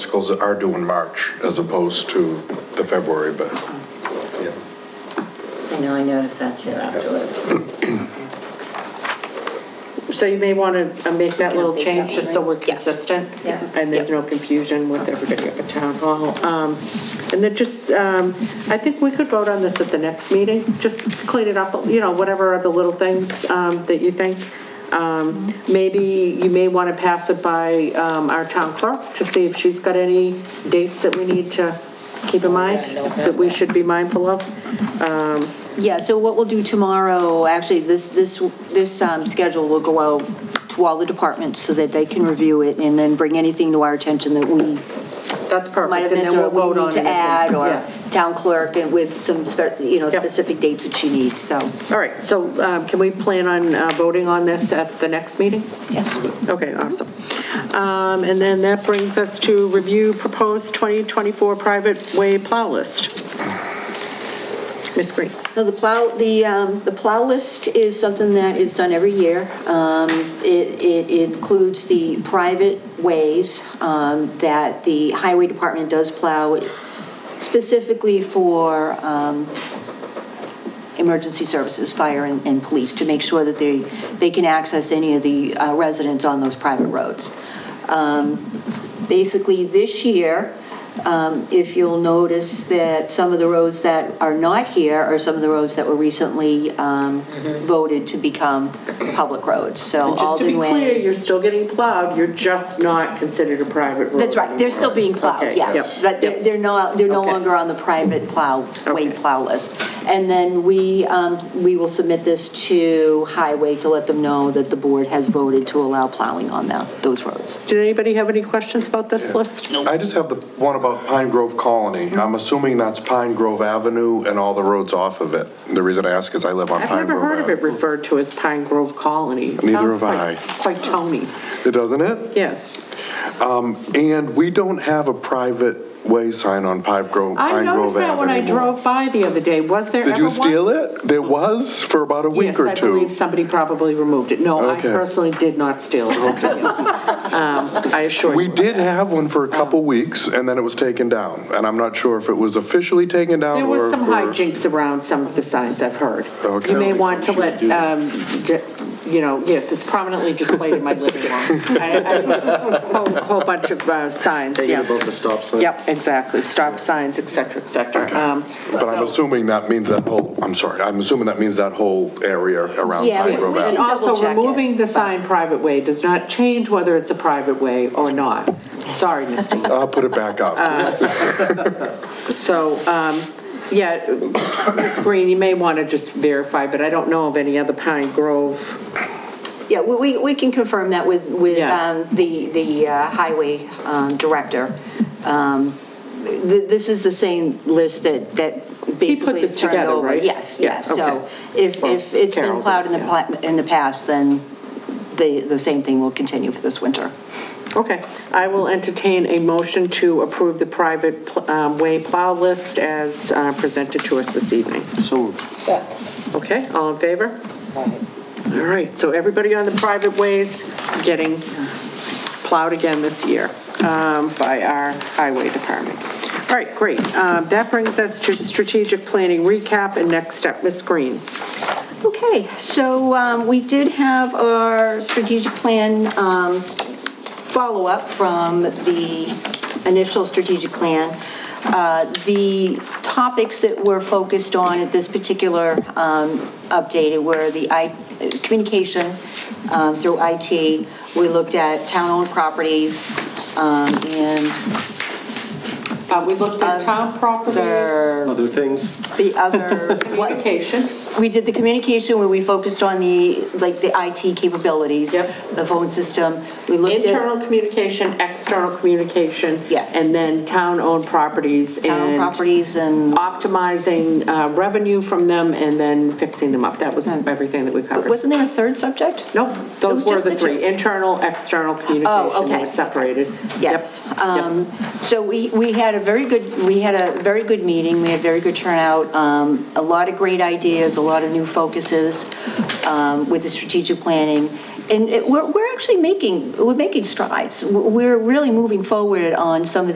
articles are due in March as opposed to the February, but, yeah. I know, I noticed that too afterwards. So you may want to make that little Update change, that just one, so right? we're consistent. Yeah. And there's no confusion with everybody at the town hall. Um, And then just, um, I think we could vote on this at the next meeting, just clean it up, you know, whatever are the little things um, that you think. Um, Maybe you may want to pass it by um, our town clerk to see if she's got any dates that we need to keep Oh, in mind, that we should be mindful of. Um, Yeah, so what we'll do tomorrow, actually, this, this, this um, schedule will go out to all the departments so that they can review it and then bring anything to our attention that we That's might perfect, and have missed then or we'll vote we on need it. to add, Yeah. or town clerk and with some, spe- you know, Yep. specific dates that she needs, so. All right, so um, can we plan on uh, voting on this at the next meeting? Yes. Okay, awesome. Um, And then that brings us to review proposed 2024 private way plow list. Ms. Green? No, the plow, the, um, the plow list is something that is done every year. Um, it, it includes the private ways, um, that the highway department does plow specifically for, um, emergency services, fire and, and police, to make sure that they, they can access any of the uh, residents on those private roads. Um, Basically, this year, um, if you'll notice that some of the roads that are not here are some of the roads that were recently um, voted to become public roads, so Mm-hmm. Just to be Oh, Alden clear, Way. you're still getting plowed, you're just not considered a private road. That's right, they're still being Okay, plowed, yes, yep, but they're yep. they're no, they're no Okay. longer on the private plow, Okay. weight plow list. And then we, um, we will submit this to Highway to let them know that the board has voted to allow plowing on that, those roads. Did anybody have any questions about this list? I just have the one about Pine Grove Colony. I'm assuming that's Pine Grove Avenue and all the roads off of it. The reason I ask is I live on I've Pine Grove never heard of it Avenue. referred to as Pine Grove Colony. It Neither sounds have I. quite- Quite Tony, It doesn't it? Um, yes. And we don't have a private way sign on Pine Grove, I Pine Grove noticed that when I Avenue. drove by the other day, was there ever Did one? you steal it? There was for about a week or Yes, I believe two. somebody probably removed it. No, I Okay. personally did not steal it. Um, I assure you. We did have one for a couple weeks and then it was taken down. And I'm not sure if it was officially taken down There or. was some or- hijinks around some of the signs I've heard. Okay. You may Sounds like want to something let, you do. um, j- you know, yes, it's prominently displayed in my living room. I- I- Whole whole bunch of uh, signs, yeah. the stop sign. Yep, exactly. Stop signs, et cetera, et cetera. Um, But I'm so- assuming that means that whole, I'm sorry, I'm assuming that means that whole area around Yeah, Pine we- Grove we- Avenue. And also, Double check it. removing the sign private way does not change whether it's a private way or not. Sorry, Misty. I'll put it back up. Uh, So, um, yeah, Ms. Green, you may want to just verify, but I don't know of any other Pine Grove. Yeah, we, we- we can confirm that with, with Yeah. um, the, the uh, highway um, director. Um, th- This is the same list that, that basically this is turned together, over. right? Yes, Yeah, yes, okay. so if, Well, if it's Carol been did, plowed in the, yeah. pla- in the past, then the, the same thing will continue for this winter. Okay, I will entertain a motion to approve the private pl- um, way plow list as uh, presented to us this evening. So, Okay, all in favor? All right, so everybody on the private ways getting plowed again this year um, by our highway department. All right, great. Um, That brings us to strategic planning recap and next step, Ms. Green. Okay, so um, we did have our strategic plan um, follow-up from the initial strategic plan. Uh, The topics that were focused on at this particular um, update were the I- communication um, through IT. We looked at town-owned properties um, and Uh, We looked at town properties, the other things. the other. what- communication. we did the communication where we focused on the, like, the IT capabilities. Yep. The phone system. We looked at Internal communication, external communication. Yes. And then town-owned properties. town and properties and, Optimizing uh, revenue from them and then fixing them up. That was everything that we covered. wasn't there a third subject? Nope, those was were just the the three, two. Oh, internal, external communication, they okay, were okay. separated. Yes. Yep, yep. Um, So we, we had a very good, we had a very good meeting, we had very good turnout, um, a lot of great ideas, a lot of new focuses um, with the strategic planning. And it- we're, we're actually making, we're making strides. We're really moving forward on some of